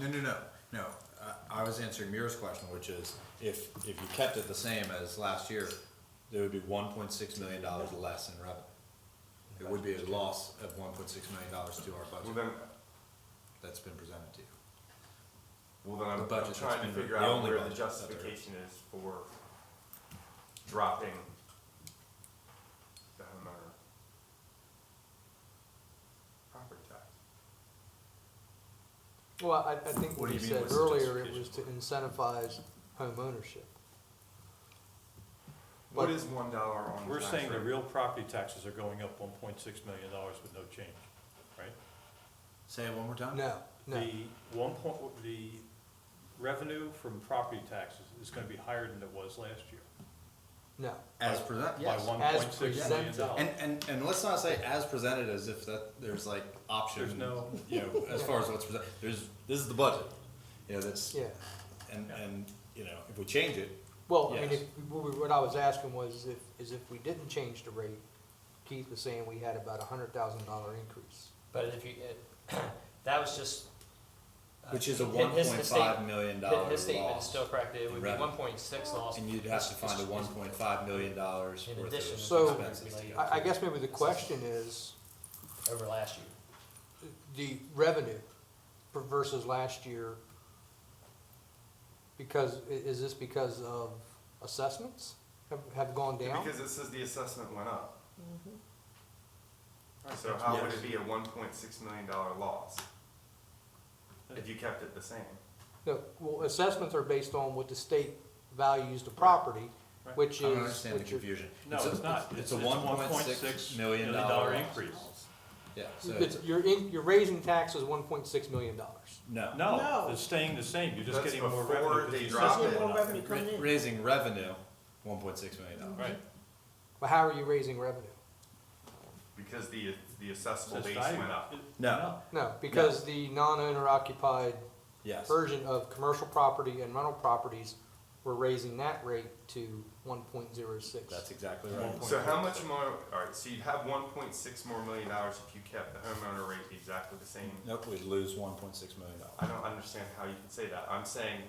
No, no, no, no. Uh, I was answering Mira's question, which is if, if you kept it the same as last year, there would be one point six million dollars less in revenue. It would be a loss of one point six million dollars to our Well, budget then, that's been presented to you. well, then The I'm, budget I'm that's trying been- to figure the out only where the budget that there- justification is for dropping the homeowner property tax. Well, I, I think What what do he you mean, said what's the earlier, it justification was to for incentivize homeownership. What But- is one dollar on the We're tax saying the rate? real property taxes are going up one point six million dollars with no change, right? Say it one more time? No, no, The one point, the revenue from property taxes is gonna be higher than it was last year. no. As presented, By yes. one point six million presented. And, dollars. and, and let's not say as presented as if that, there's like option. There's no- You know, as far as what's presented, there's, this is the budget. You know, that's, Yeah. and, and, you know, if we change it, Well, I mean, Yes. if, what we- what I was asking was if, is if we didn't change the rate, Keith was saying we had about a hundred thousand dollar increase. But if you, it, that was just. uh, which is a his- one point his five state- million hi- dollar His statement is loss. still correct, it in would be revenue. one point six loss. And you'd have to find a It's- one it's- point five million dollars In worth addition. So- of expenses. to I- get I, I to. guess maybe the question is Over last year. the revenue per- versus last year. Because, i- is this because of assessments have, have gone down? Because it says the assessment went up. So how would it be a one point six million dollar loss? If you kept it the same? No, well, assessments are based on what the state values the property, Right. which is. I don't understand the which are- confusion. No, a- it's not. It's It's a it's one point six million dollar. dollar increase. Yeah, so, It's, you're in, you're raising taxes one point six million dollars. no. No, No. it's staying the same, you're just That's getting more before revenue. 'cause they the dropped assessment it. went More up. revenue coming Ra- in. Raising revenue, one point six million dollars. Right, Well, how are you raising revenue? Because the, the assessable Assessed base value. went up. No, No, because the non-owner occupied yes. version of commercial property and rental properties, we're raising that rate to one point zero six. That's exactly right. So how much more, alright, so you'd have one point six more million dollars if you kept the homeowner rate exactly the same. Nope, we'd lose one point six million I dollars. don't understand how you can say that. I'm saying,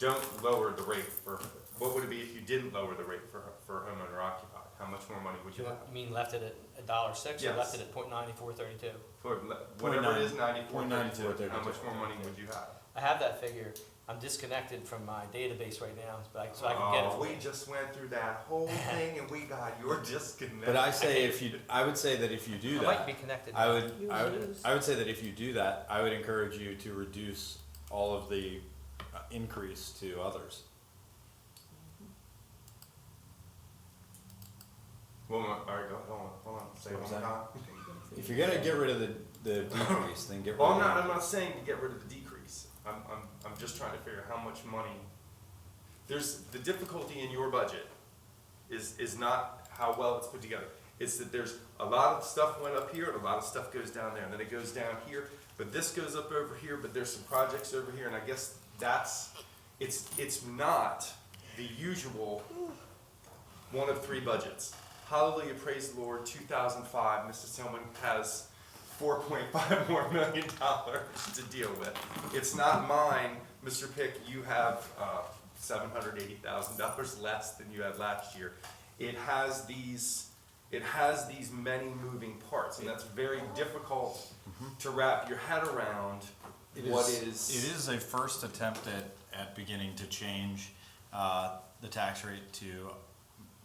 don't lower the rate for, what would it be if you didn't lower the rate for, for homeowner occupied? How much more money would you You have? mean left it at a dollar six or Yes. left it at point ninety-four thirty-two? For le- whatever it is, ninety-four, Point nine- thirty-two, how much 94.32. more money would you have? I have that figure, I'm disconnected from my database right now, but I, so I can get it Oh, for we you. just went through that whole thing and we got your disconnect. But I say if you, I would say that if you do I might that, be connected. I now. would, You I would, lose. I would say that if you do that, I would encourage you to reduce all of the uh, increase to others. Well, all right, go, hold on, hold on, say it What one was more that? time. If you're gonna get rid of the, the decrease, then get rid Well, of. I'm not, the- Oh, I'm not saying to get rid of the decrease. I'm, I'm, I'm just trying to figure out how much money. There's, the difficulty in your budget is, is not how well it's put together. It's that there's a lot of stuff went up here and a lot of stuff goes down there and then it goes down here, but this goes up over here, but there's some projects over here and I guess that's, it's, it's not the usual one of three budgets. Hallelujah, praise the Lord, 2005, Mrs. Tillman has 4.5 more million dollars to deal with. It's not mine, Mr. Pick, you have uh, $780,000 less than you had last year. It has these, it has these many moving parts, and that's very difficult to wrap your head around Mm-hmm. It what is- is. It is a first attempt at, at beginning to change, uh, the tax rate to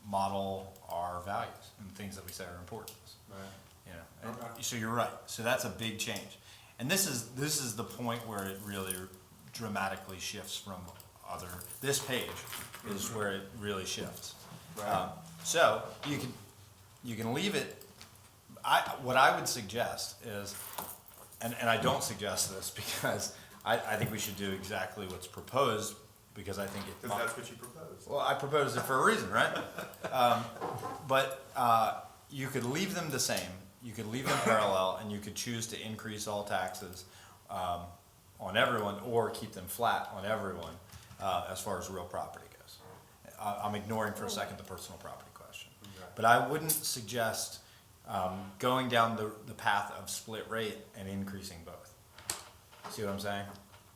model our values and things that we say are important. to us, You know, and- Okay. so you're right, so that's a big change. And this is, this is the point where it really dramatically shifts from other, this page is where it really shifts. Right. Um, So, you can, you can leave it, I, what I would suggest is, and, and I don't suggest this because I, I think we should do exactly what's proposed because I think it. Because that's what you proposed. Well, I proposed it for a reason, right? Um, But uh, you could leave them the same, you could leave them parallel, and you could choose to increase all taxes um, on everyone or keep them flat on everyone uh, as far as real property goes. I- I'm ignoring for a second the personal property question. But I wouldn't suggest um, going down the, the path of split rate and increasing both. See what I'm saying?